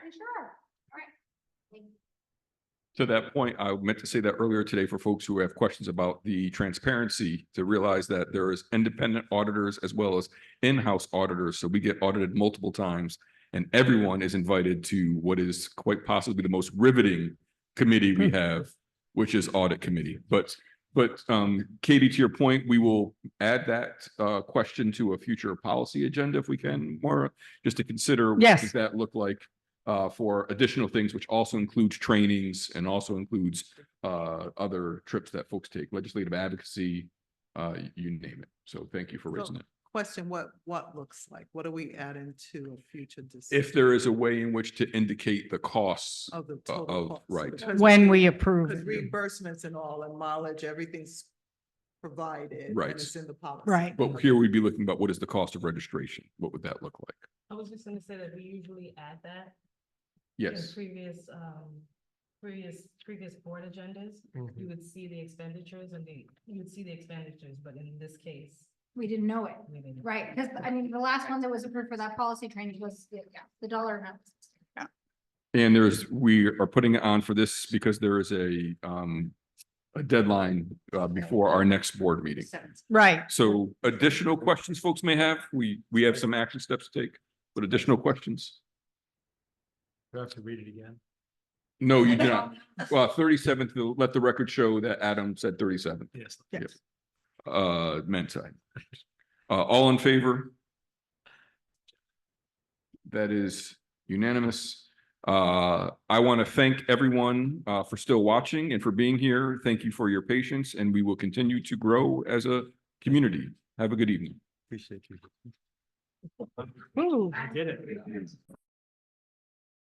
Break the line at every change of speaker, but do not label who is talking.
pretty sure.
To that point, I meant to say that earlier today for folks who have questions about the transparency, to realize that there is independent auditors as well as in-house auditors. So we get audited multiple times and everyone is invited to what is quite possibly the most riveting committee we have, which is audit committee. But, but um, Katie, to your point, we will add that uh, question to a future policy agenda if we can, Maura, just to consider. what
Yes.
Does that look like uh, for additional things, which also includes trainings and also includes uh, other trips that folks take, legislative advocacy, uh, y- you name it. So thank you for raising it.
Question, what, what looks like? What are we adding to a future decision
If there is a way in which to indicate the costs,
of the
uh,
total
of-
cost?
right.
Because-
When we approve.
Because
it.
reimbursements and all and mileage, everything's provided. and
Right.
It's in the policy.
Right.
but here we'd be looking about what is the cost of registration? What would that look like?
I was just gonna say that we usually add that. in
Yes,
Previous, um, previous, previous board agendas, you would see the expenditures and the, you would see the expenditures, but in this case,
We didn't know it,
we didn't.
right? Because I mean, the last one that was approved for that policy training was, yeah, the dollar amount.
and there's, we are putting it on for this because there is a um, a deadline uh, before our next board meeting.
Right.
So additional questions folks may have, we, we have some action steps to take, but additional questions?
Do I have to read it again?
No, Oh, you do not. Well, thirty-seventh, let the record show that Adam said thirty-seventh,
Yes.
Yes. uh, meant side. Uh, all in favor? That is unanimous. Uh, I want to thank everyone, uh, for still watching and for being here. Thank you for your patience and we will continue to grow as a community. Have a good evening.
Appreciate you.
Ooh.
I did it.